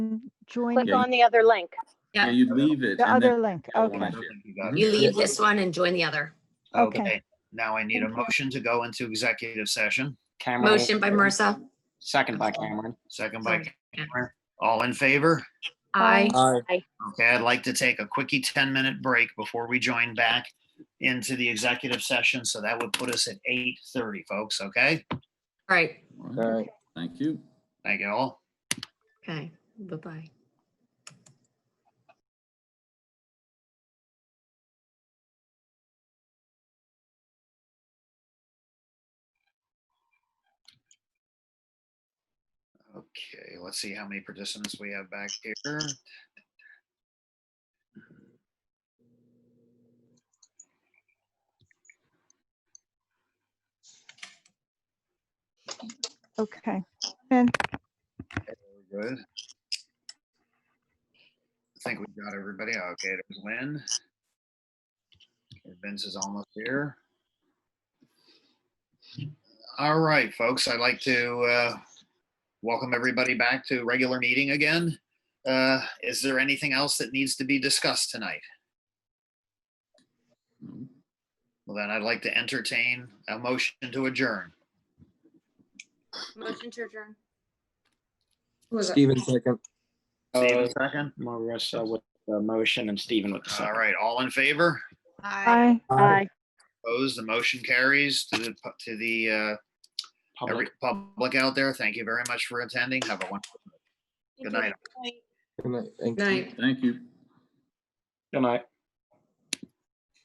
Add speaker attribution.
Speaker 1: join
Speaker 2: Click
Speaker 1: the
Speaker 2: on the other link.
Speaker 3: Yeah.
Speaker 4: Yeah, you leave it. and then
Speaker 1: other link.
Speaker 4: the other one
Speaker 1: Okay.
Speaker 4: I shared.
Speaker 3: You leave this one and join the other.
Speaker 1: okay.
Speaker 5: Okay, now I need a motion to go into executive session,
Speaker 6: Cameron.
Speaker 3: Motion by Marissa.
Speaker 6: Second by Cameron.
Speaker 5: second by,
Speaker 3: Sorry, yeah.
Speaker 5: Cameron. all in favor?
Speaker 3: Aye.
Speaker 5: Okay, I'd like to take a quickie 10-minute break before we join back into the executive session, so that would put us at 8:30, folks, okay?
Speaker 3: All right.
Speaker 4: All right, Thank you.
Speaker 5: Thank you all.
Speaker 3: Okay. Bye-bye.
Speaker 5: Okay, let's see how many participants we have back here.
Speaker 1: Okay. And
Speaker 5: We're Good. I think we've got everybody. Okay, there's Lynn. Okay, Vince is almost here. All right, folks, I'd like to uh, welcome everybody back to regular meeting again. Uh, Is there anything else that needs to be discussed tonight? Well, then I'd like to entertain a motion to adjourn.
Speaker 7: Motion to adjourn.
Speaker 6: Steven second.
Speaker 5: Steven, second.
Speaker 6: Marissa with the motion and Steven with the
Speaker 5: All
Speaker 6: second.
Speaker 5: right, all in favor?
Speaker 1: I,
Speaker 2: Bye.
Speaker 5: Opposed, the motion carries to the, pu- to the uh,
Speaker 6: Public.
Speaker 5: every public out there, thank you very much for attending. Have a wonderful night.
Speaker 7: Thank you.
Speaker 5: Good night.
Speaker 3: Night.
Speaker 4: Thank you.
Speaker 6: Good night.